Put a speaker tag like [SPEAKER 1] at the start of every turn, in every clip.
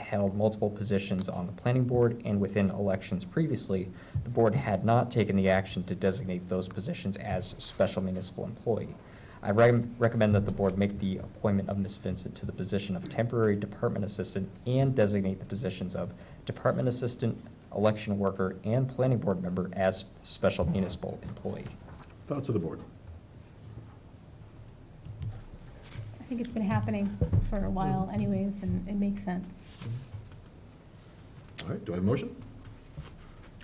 [SPEAKER 1] held multiple positions on the planning board and within elections previously, the board had not taken the action to designate those positions as special municipal employee. I re- recommend that the board make the appointment of Ms. Vincent to the position of temporary department assistant and designate the positions of department assistant, election worker, and planning board member as special municipal employee.
[SPEAKER 2] Thoughts of the board?
[SPEAKER 3] I think it's been happening for a while anyways, and it makes sense.
[SPEAKER 2] All right, do I have a motion?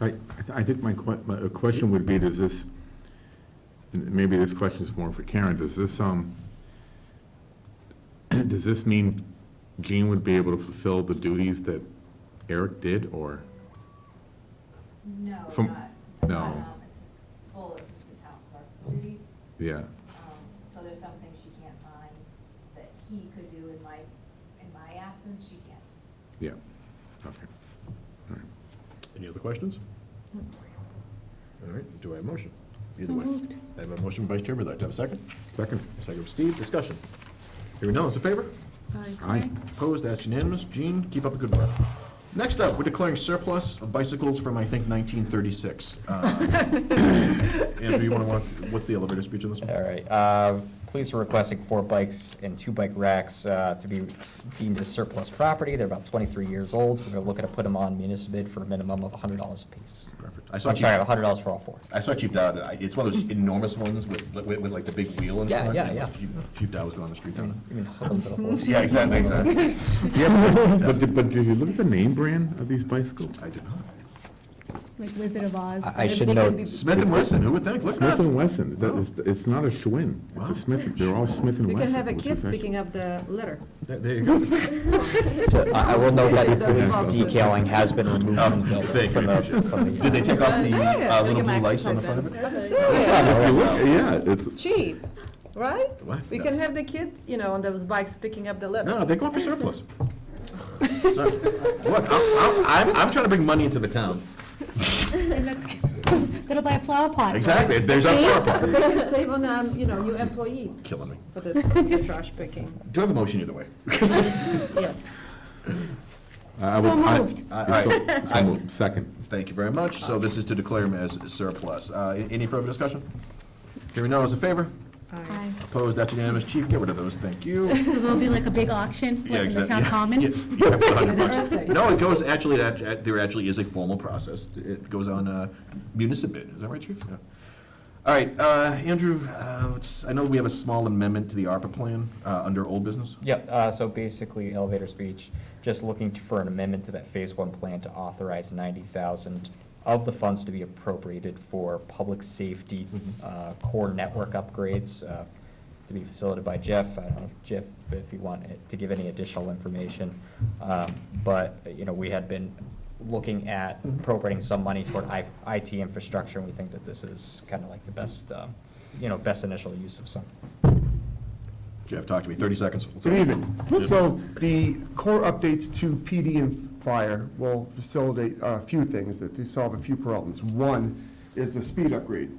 [SPEAKER 4] I, I th- I think my que, my uh, question would be, does this, and maybe this question is more for Karen, does this, um, does this mean Gene would be able to fulfill the duties that Eric did, or?
[SPEAKER 5] No, not,
[SPEAKER 4] From-
[SPEAKER 5] not,
[SPEAKER 4] no.
[SPEAKER 5] um, assist, full assistant town clerk duties.
[SPEAKER 4] Yeah,
[SPEAKER 5] Um, So there's some things she can't sign that he could do in my, in my absence, she can't.
[SPEAKER 4] yeah, okay.
[SPEAKER 2] Any other questions? All right, do I have a motion? Either
[SPEAKER 3] So
[SPEAKER 2] way.
[SPEAKER 3] moved.
[SPEAKER 2] I have a motion, Vice Chair, would like to have a second?
[SPEAKER 4] Second,
[SPEAKER 2] Second from Steve, discussion. Hearing none, those in favor?
[SPEAKER 4] aye.
[SPEAKER 2] Opposed, that's unanimous. Gene, keep up the good work. Next up, we're declaring surplus of bicycles from, I think, 1936. Uh, Andrew, you want to walk, what's the elevator speech on this one?
[SPEAKER 1] All right, uh, police are requesting four bikes and two bike racks, uh, to be deemed as surplus property. They're about twenty-three years old. We're looking to put them on municipal bid for a minimum of hundred dollars apiece.
[SPEAKER 2] Perfect. I saw
[SPEAKER 1] I'm
[SPEAKER 2] Chief-
[SPEAKER 1] sorry, hundred dollars for all four.
[SPEAKER 2] I saw Chief Dodd, I- it's one of those enormous ones with, with with, like the big wheel and
[SPEAKER 1] Yeah,
[SPEAKER 2] stuff.
[SPEAKER 1] yeah, yeah.
[SPEAKER 2] Chief- Chief Dodd was going on the street down there.
[SPEAKER 1] You mean hook 'em to the horse?
[SPEAKER 2] Yeah, exactly, exactly.
[SPEAKER 4] But, did- but did you look at the name brand of these bicycles?
[SPEAKER 2] I did not.
[SPEAKER 3] Like Wizard of Oz.
[SPEAKER 1] I I
[SPEAKER 3] but
[SPEAKER 1] should
[SPEAKER 3] they could
[SPEAKER 1] note,
[SPEAKER 3] be-
[SPEAKER 2] Smith and Wesson, who would think? Look at
[SPEAKER 4] Smith
[SPEAKER 2] us.
[SPEAKER 4] and Wesson, Is that- it's, it's not a Schwinn, it's
[SPEAKER 2] Wow.
[SPEAKER 4] a Smith, they're all Smith and
[SPEAKER 6] We
[SPEAKER 4] Wesson.
[SPEAKER 6] can have a
[SPEAKER 4] which
[SPEAKER 6] kid
[SPEAKER 4] is actually-
[SPEAKER 6] picking up the litter.
[SPEAKER 2] There there you go.
[SPEAKER 1] so I I will note that the
[SPEAKER 6] Doesn't
[SPEAKER 1] police
[SPEAKER 6] cost it.
[SPEAKER 1] decaling has been removed from the,
[SPEAKER 2] Um, Oh, Thank you,
[SPEAKER 1] from the,
[SPEAKER 2] I appreciate it.
[SPEAKER 1] from the.
[SPEAKER 2] Did they take off the uh, little blue lights on the front of it?
[SPEAKER 6] Serious,
[SPEAKER 4] If you look, yeah, it's,
[SPEAKER 6] cheap, right?
[SPEAKER 2] What?
[SPEAKER 6] We can have the kids, you know, on those bikes picking up the litter.
[SPEAKER 2] No, they're going for surplus. So, Look, I'm, I'm, I'm- I'm trying to bring money into the town.
[SPEAKER 3] and that's- That'll buy a flower pot.
[SPEAKER 2] Exactly, there's our flower pot.
[SPEAKER 6] They can save on, um, you know, new employee
[SPEAKER 2] Killing me.
[SPEAKER 6] for the for the trash picking,
[SPEAKER 2] Do I have a motion either way?
[SPEAKER 6] yes.
[SPEAKER 4] I
[SPEAKER 3] So
[SPEAKER 4] would, I.
[SPEAKER 3] moved.
[SPEAKER 2] All right,
[SPEAKER 4] so- so moved. Second.
[SPEAKER 2] thank you very much. So this is to declare him as surplus. Uh, Any further discussion? Hearing none, all those in favor?
[SPEAKER 3] Aye.
[SPEAKER 2] Opposed, that's unanimous. Chief, get rid of those, thank you.
[SPEAKER 3] So there'll be like a big auction what,
[SPEAKER 2] Yeah,
[SPEAKER 3] in the
[SPEAKER 2] exactly.
[SPEAKER 3] town common?
[SPEAKER 2] Yeah, yeah, for the hundred bucks.
[SPEAKER 6] Perfect.
[SPEAKER 2] No, it goes, actually, it act- act- there actually is a formal process. It goes on uh, municipal bid, is that right, Chief? Yeah. All right, uh, Andrew, uh, let's- I know we have a small amendment to the ARPA plan uh, under old business.
[SPEAKER 1] Yep, uh, so basically elevator speech, just looking to- for an amendment to that phase one plan to authorize ninety thousand of the funds to be appropriated for public safety, uh, core network upgrades, uh, to be facilitated by Jeff. I don't know, Jeff, if you want it- to give any additional information. Um, but, you know, we had been looking at appropriating some money toward I, IT infrastructure, and we think that this is kind of like the best, um, you know, best initial use of some,
[SPEAKER 2] Jeff, talk to me, 30 seconds.
[SPEAKER 7] Good evening. So the core updates to PD and fire will facilitate a few things, that they solve a few problems. One is the speed upgrade,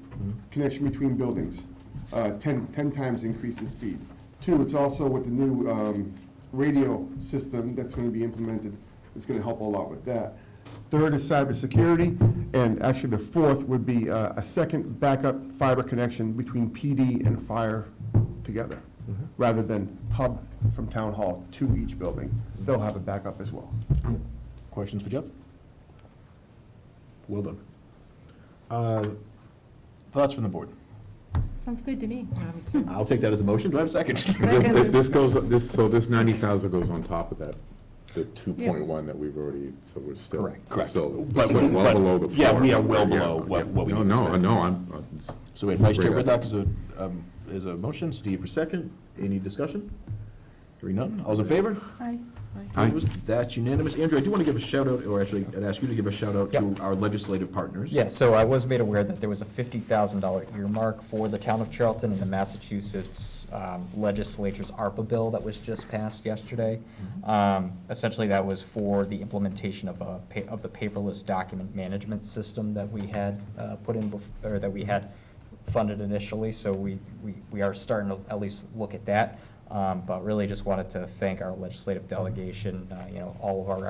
[SPEAKER 7] connection between buildings, uh, 10, 10 times increase in speed. Two, it's also with the new um, radio system that's going to be implemented, it's going to help a lot with that. Third is cybersecurity, and actually the fourth would be uh, a second backup fiber connection between PD and fire together, rather than hub from town hall to each building. They'll have a backup as well.
[SPEAKER 2] Questions for Jeff? Well done. Uh, Thoughts from the board?
[SPEAKER 3] Sounds good to me.
[SPEAKER 6] Um, too.
[SPEAKER 2] I'll take that as a motion, do I have a second?
[SPEAKER 4] This- This this goes, this, so this ninety thousand goes on top of that, the two point one that we've already, so we're still.
[SPEAKER 1] Correct.
[SPEAKER 2] Correct.
[SPEAKER 4] So,
[SPEAKER 2] But-
[SPEAKER 4] so well
[SPEAKER 2] but-
[SPEAKER 4] below the floor.
[SPEAKER 2] yeah, we are well
[SPEAKER 4] Yeah,
[SPEAKER 2] below what-
[SPEAKER 4] yeah.
[SPEAKER 2] what we
[SPEAKER 4] No,
[SPEAKER 2] need to
[SPEAKER 4] no,
[SPEAKER 2] spend.
[SPEAKER 4] no, I'm, uh, it's-
[SPEAKER 2] So we had Vice Chair
[SPEAKER 4] Great
[SPEAKER 2] Whitlock as a, um, as a motion, Steve for second. Any discussion? Hearing none, all's in favor?
[SPEAKER 3] Aye.
[SPEAKER 4] Aye.
[SPEAKER 2] Opposed? That's unanimous. Andrew, I do want to give a shout out, or actually, I'd ask you to give a shout out to our legislative partners.
[SPEAKER 1] Yeah, so I was made aware that there was a fifty thousand dollar earmark for the town of Charlton in the Massachusetts um, legislature's ARPA bill that was just passed yesterday. Um, Essentially, that was for the implementation of a, pa- of the paperless document management system that we had uh, put in, bef- or that we had funded initially, so we, we, we are starting to at least look at that. Um, But really just wanted to thank our legislative delegation, uh, you know, all of our